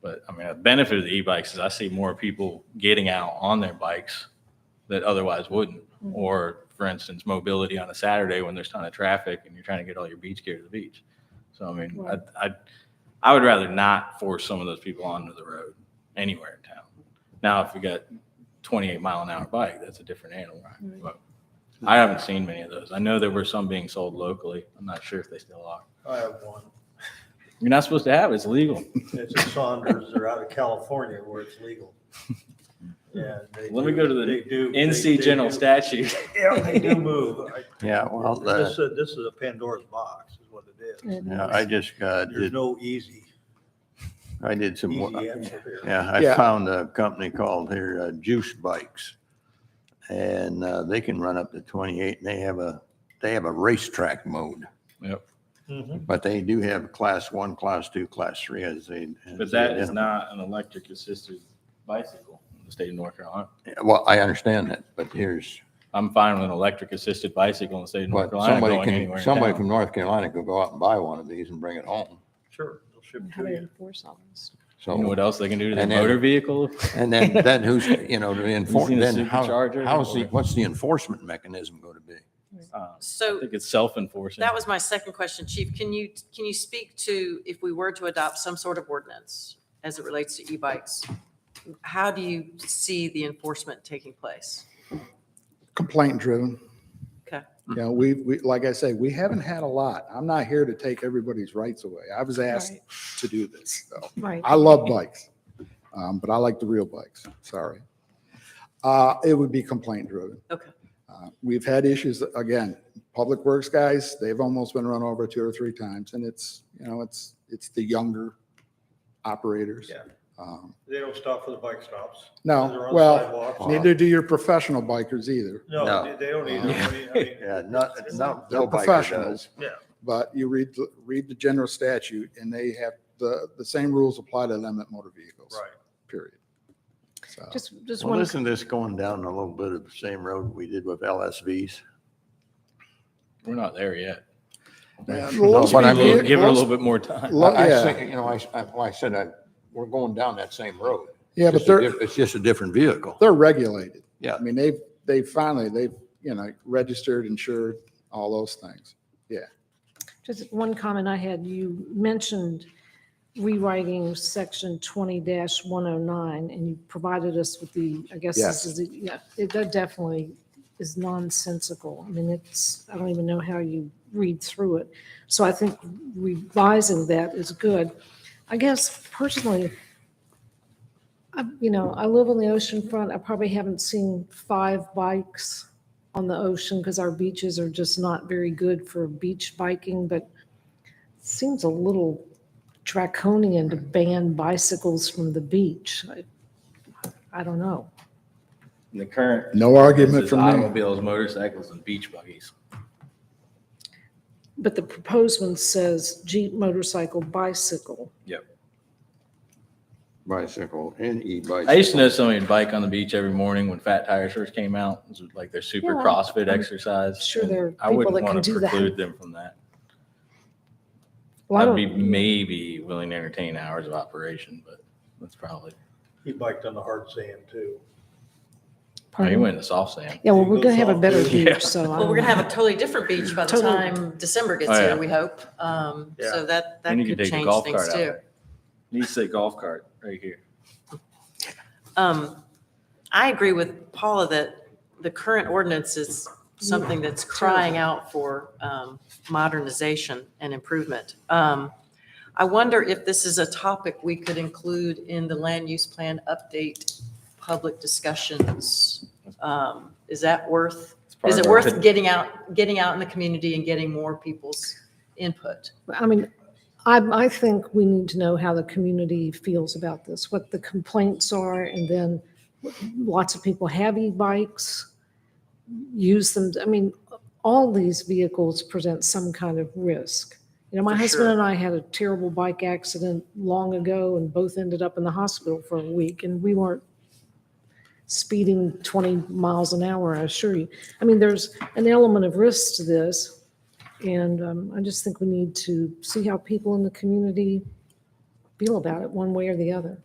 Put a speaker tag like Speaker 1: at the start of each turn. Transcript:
Speaker 1: But I mean, the benefit of the e-bikes is I see more people getting out on their bikes that otherwise wouldn't.
Speaker 2: Mm-hmm.
Speaker 1: Or for instance, mobility on a Saturday when there's ton of traffic and you're trying to get all your beach gear to the beach. So I mean,
Speaker 2: Right.
Speaker 1: I, I, I would rather not force some of those people onto the road anywhere in town. Now, if you got 28 mile an hour bike, that's a different animal.
Speaker 2: Right.
Speaker 1: But I haven't seen many of those. I know there were some being sold locally. I'm not sure if they still are.
Speaker 3: I have one.
Speaker 1: You're not supposed to have it. It's legal.
Speaker 3: It's a Saunders. They're out of California where it's legal. Yeah. they
Speaker 1: Let me
Speaker 3: do-
Speaker 1: go to the
Speaker 3: they do- they-
Speaker 1: NC
Speaker 3: they
Speaker 1: general
Speaker 3: do-
Speaker 1: statute.
Speaker 3: Yeah, they do move. I-
Speaker 4: Yeah, well,
Speaker 3: This,
Speaker 4: the,
Speaker 3: is- this is a Pandora's box is what it is.
Speaker 4: yeah, I just, uh,
Speaker 3: There's
Speaker 4: did,
Speaker 3: no easy,
Speaker 4: I did some, wo-
Speaker 3: easy answer here.
Speaker 4: yeah, I
Speaker 5: Yeah.
Speaker 4: found a company called here, uh, Juice Bikes. And, uh, they can run up to twenty-eight and they have a, they have a racetrack mode.
Speaker 1: Yep.
Speaker 3: Mhm.
Speaker 4: But they do have class one, class two, class three as they.
Speaker 1: But
Speaker 4: as they
Speaker 1: that is
Speaker 4: identify.
Speaker 1: not an electric assisted bicycle in the state of North Carolina.
Speaker 4: Well, I understand that, but here's
Speaker 1: I'm fine with an electric assisted bicycle in the state of
Speaker 4: But
Speaker 1: North Carolina
Speaker 4: somebody
Speaker 1: going anywhere.
Speaker 4: can,
Speaker 1: in
Speaker 4: somebody
Speaker 1: town.
Speaker 4: from North Carolina could go out and buy one of these and bring it home.
Speaker 3: Sure. They'll ship it
Speaker 2: How
Speaker 3: to
Speaker 2: to
Speaker 3: you.
Speaker 2: enforce all this.
Speaker 1: You know
Speaker 4: So,
Speaker 1: what else they can do to their
Speaker 4: And then-
Speaker 1: motor vehicle?
Speaker 4: and then, then who's, you know, to enforce,
Speaker 1: seen a
Speaker 4: then how,
Speaker 1: supercharger?
Speaker 4: how's the, what's the enforcement mechanism going to be?
Speaker 1: Uh, I
Speaker 6: So
Speaker 1: think it's self-enforcing.
Speaker 6: that was my second question, Chief. Can you, can you speak to if we were to adopt some sort of ordinance as it relates to e-bikes? How do you see the enforcement taking place?
Speaker 5: Complaint driven.
Speaker 6: Okay.
Speaker 5: You know, we, we, like I say, we haven't had a lot. I'm not here to take everybody's rights away. I was asked
Speaker 2: Right.
Speaker 5: to do this, so.
Speaker 2: Right.
Speaker 5: I love bikes, um, but I like the real bikes, sorry. Uh, it would be complaint driven.
Speaker 6: Okay.
Speaker 5: Uh, We've had issues, again, Public Works guys, they've almost been run over two or three times, and it's, you know, it's, it's the younger operators.
Speaker 3: Yeah.
Speaker 5: Um,
Speaker 3: They don't stop for the bike stops. They're
Speaker 5: No,
Speaker 3: on
Speaker 5: well,
Speaker 3: sidewalks.
Speaker 5: neither do your professional bikers either,
Speaker 3: No,
Speaker 4: No.
Speaker 3: they- they don't either.
Speaker 4: Yeah.
Speaker 3: I mean- I mean,
Speaker 4: Yeah, not, not,
Speaker 5: They're
Speaker 4: no biker
Speaker 5: professionals.
Speaker 4: does.
Speaker 5: but you read, the- read the general statute, and they have, the, the same rules apply to them at motor vehicles,
Speaker 3: Right.
Speaker 5: period. So,
Speaker 2: Just, just
Speaker 4: Well,
Speaker 2: one,
Speaker 4: isn't this going down a little bit of the same road we did with LSVs?
Speaker 1: We're not there yet.
Speaker 5: Yeah,
Speaker 4: No,
Speaker 5: low
Speaker 4: but I
Speaker 1: Give
Speaker 4: mean-
Speaker 5: speed vehi-
Speaker 1: it give it a
Speaker 5: low
Speaker 1: little bit more time.
Speaker 5: Lo-
Speaker 4: I- I
Speaker 5: yeah.
Speaker 4: think, You know, I, I, well, I said, I, we're going down that same road.
Speaker 5: Yeah, but
Speaker 4: Just a
Speaker 5: they're,
Speaker 4: diff- It's just a different vehicle.
Speaker 5: they're regulated.
Speaker 4: Yeah.
Speaker 5: I mean, they've, they finally, they've, you know, registered, insured, all those things.
Speaker 2: just one comment I had. You mentioned rewriting section twenty one oh nine, and you provided us with the, I guess
Speaker 5: Yes.
Speaker 2: this is, the- yeah, it that definitely is nonsensical. I mean, it's, I don't even know how you read through it. So I think revising that is good. I guess personally, I, you know, I live on the ocean front. I probably haven't seen five bikes on the ocean because our beaches are just not very good for beach biking, but it seems a little draconian to ban bicycles from the beach. I- I don't know.
Speaker 1: The current
Speaker 5: No argument
Speaker 1: is
Speaker 5: from me.
Speaker 1: automobiles, motorcycles, and beach buggies.
Speaker 2: But the proposed one says Jeep, motorcycle, bicycle.
Speaker 4: Bicycle and e-bicycle.
Speaker 1: I used to know somebody would bike on the beach every morning when Fat Tires first came out. It was like their super
Speaker 2: Yeah, I'm-
Speaker 1: CrossFit
Speaker 2: I'm
Speaker 1: exercise.
Speaker 2: sure
Speaker 1: and
Speaker 2: there are
Speaker 1: I
Speaker 2: people
Speaker 1: wouldn't
Speaker 2: that can
Speaker 1: want to
Speaker 2: do that.
Speaker 1: preclude them from that.
Speaker 2: Well, I
Speaker 1: I'd be
Speaker 2: don't-
Speaker 1: maybe willing to entertain hours of operation, but that's probably.
Speaker 3: He biked on the hard sand too.
Speaker 1: Oh, you
Speaker 2: pardon?
Speaker 1: went to soft sand.
Speaker 2: Yeah, well, we're going to have a better
Speaker 1: Yeah.
Speaker 2: beach, so. I
Speaker 6: Well, we're
Speaker 2: don't
Speaker 6: going to have
Speaker 2: know.
Speaker 6: a totally different beach by the
Speaker 2: Totally.
Speaker 6: time December gets
Speaker 1: Oh, yeah.
Speaker 6: here, we hope. Um,
Speaker 3: Yeah.
Speaker 6: So that, that
Speaker 1: Then you can
Speaker 6: could
Speaker 1: take the
Speaker 6: change
Speaker 1: golf
Speaker 6: things
Speaker 1: cart out.
Speaker 6: too.
Speaker 1: there. Needs to say golf cart right here.
Speaker 6: Um, I agree with Paula that the current ordinance is something that's crying out for um, modernization and improvement. Um, I wonder if this is a topic we could include in the land use plan update public discussions. Um, Is that worth,
Speaker 1: It's part
Speaker 6: is
Speaker 1: of
Speaker 6: it
Speaker 1: our
Speaker 6: worth
Speaker 1: pit-
Speaker 6: getting out, getting out in the community and getting more people's input?
Speaker 2: I mean, I, I think we need to know how the community feels about this, what the complaints are, and then lots of people have e-bikes, use them, I mean, all these vehicles present some kind of risk. You know, my
Speaker 6: For
Speaker 2: husband
Speaker 6: sure.
Speaker 2: and I had a terrible bike accident long ago and both ended up in the hospital for a week, and we weren't speeding 20 miles an hour, I assure you. I mean, there's an element of risk to this, and um, I just think we need to see how people in the community feel about it, one way or the other.